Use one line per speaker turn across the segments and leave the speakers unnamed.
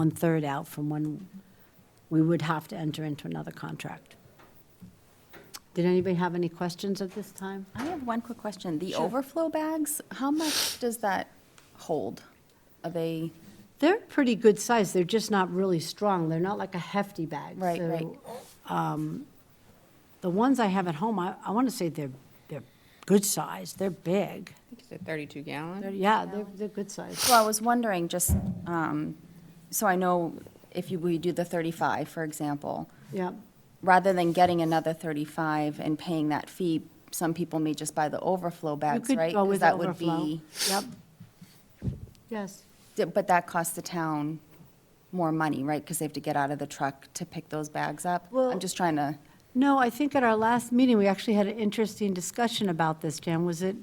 one-third out from when we would have to enter into another contract. Did anybody have any questions at this time?
I have one quick question. The overflow bags, how much does that hold? Are they,
They're pretty good size, they're just not really strong, they're not like a hefty bag.
Right,
So,
right.
um, The ones I have at home, I, I want to say they're, they're good size, they're big.
Is it 32 gallon?
They're- Yeah, they're, they're good size.
well, I was wondering, just, um, so I know if you, we do the 35, for example,
Yeah,
rather than getting another 35 and paying that fee, some people may just buy the overflow
you
bags,
could
right?
go
'Cause
with
that would
overflow.
be-
Yep. Yes.
di- But that costs the town more money, right? Because they have to get out of the truck to pick those bags up.
Well-
I'm just trying to,
No, I think at our last meeting, we actually had an interesting discussion about this, Jan. Was it,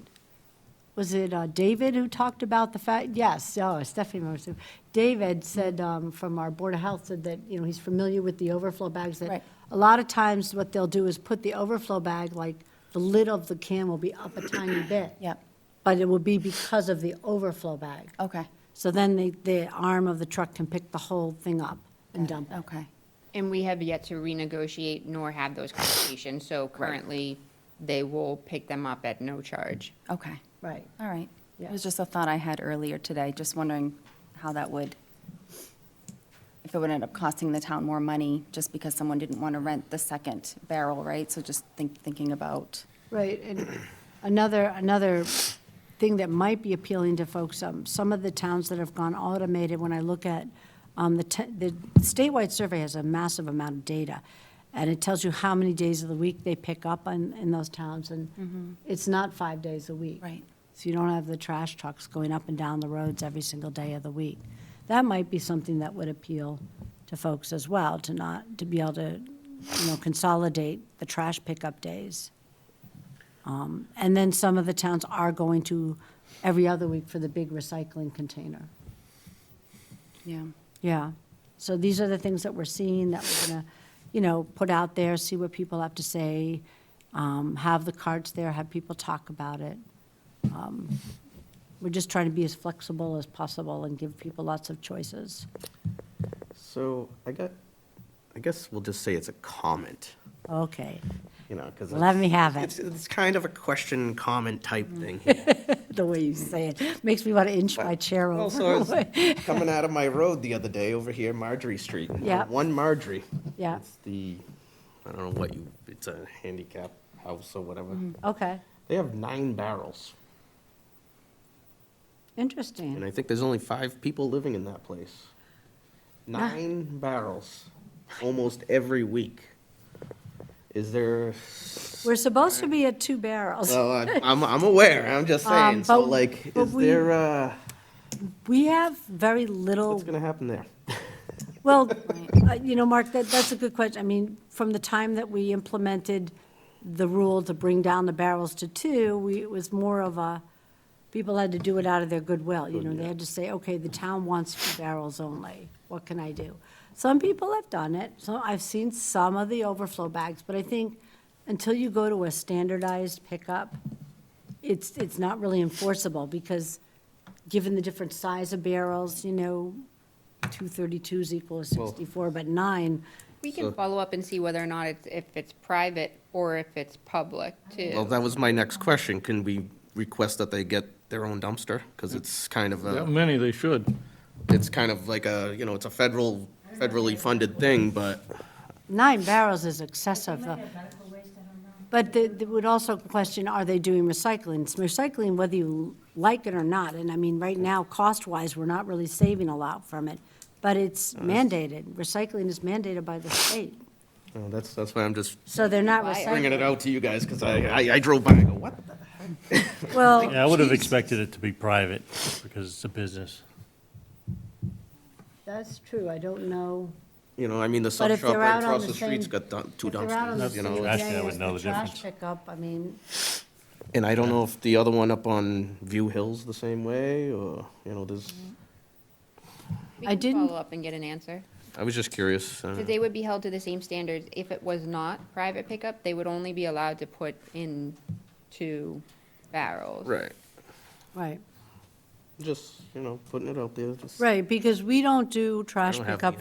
was it uh, David who talked about the fact, yes, oh, Stephanie remembers. it. David said, um, from our Board of Health, said that, you know, he's familiar with the overflow bags. That
Right.
A lot of times, what they'll do is put the overflow bag, like, the lid of the can will be up a tiny bit.
yep,
But it will be because of the overflow bag.
okay,
So then the, the arm of the truck can pick the whole thing up and dump it.
okay.
And we have yet to renegotiate nor have those conversations, so currently, they will pick them up at no charge.
Okay,
Right.
all right. It
Yeah.
was just a thought I had earlier today, just wondering how that would, if it would end up costing the town more money, just because someone didn't want to rent the second barrel, right? So just think, thinking about,
Right, and another, another thing that might be appealing to folks, um, some of the towns that have gone automated, when I look at, um, the, te- the statewide survey has a massive amount of data, and it tells you how many days of the week they pick up in, in those towns, and it's not five days a week.
Right.
So you don't have the trash trucks going up and down the roads every single day of the week. That might be something that would appeal to folks as well, to not, to be able to, you know, consolidate the trash pickup days. Um, And then some of the towns are going to every other week for the big recycling container.
yeah.
Yeah. So these are the things that we're seeing that we're going to, you know, put out there, see what people have to say, um, have the cards there, have people talk about it. Um, We're just trying to be as flexible as possible and give people lots of choices.
So I got, I guess we'll just say it's a comment,
Okay.
you know, because.
Let me have it.
It's, it's kind of a question, comment type thing. here.
The way you say it makes me want to inch my chair
Well,
over.
so I was Coming out of my road the other day over here, Marjorie Street. and
Yeah.
One Marjorie.
Yeah.
It's the, I don't know what you, it's a handicap house or whatever.
Mm-hmm. Okay,
They have nine barrels. And
interesting.
I think there's only five people living in that place. Nine barrels, almost every week. Is there
We're supposed to be at two barrels.
Well, I- I'm, I'm aware, I'm just saying,
Um,
so
but-
like,
but
is
we-
there, uh,
We have very little.
what's gonna happen there?
Well, uh, you know, Mark, that, that's a good question. I mean, from the time that we implemented the rule to bring down the barrels to two, we, it was more of a, people had to do it out of their goodwill, you know, they had to say, okay, the town wants two barrels only, what can I do? Some people have done it, so I've seen some of the overflow bags, but I think until you go to a standardized pickup, it's, it's not really enforceable, because given the different size of barrels, you know, two thirty-twos equals
Well-
sixty-four, but nine,
We can follow up and see whether or not it's, if it's private or if it's public,
Well,
too.
that was my next question, can we request that they get their own dumpster? Because it's kind of
That
a,
many, they should.
it's kind of like a, you know, it's a federal, federally funded thing, but
nine barrels is excessive, though. But they, they would also question, are they doing recycling? It's Recycling, whether you like it or not, and I mean, right now, cost-wise, we're not really saving a lot from it, but it's mandated. Recycling is mandated by the state,
you know, that's, that's why I'm just
so they're not
Why?
bringing
recycling.
it out to you guys, because I, I I drove by and go, what? the-"
Well,
Yeah, I would have expected it to be private because it's a business.
that's true, I don't know.
You know, I mean, the
But
sub
if
shop
they're
right
out on
across
the
the street's
same-
got dun- two
If they're out on the
dumpsters, you
same
know.
Actually, I
day
would
as
know
the
the
trash
difference.
pickup, I mean,
And I don't know if the other one up on View Hill's the same way, or, you know, there's,
Mm-hmm.
We
I
can
didn't-
Follow up and get an answer.
I was just curious. uh,
So they would be held to the same standards. If it was not private pickup, they would only be allowed to put in two barrels.
Right.
right. Just, you know, putting it out there, just.
Right, because we don't do
I
trash
don't have
pickup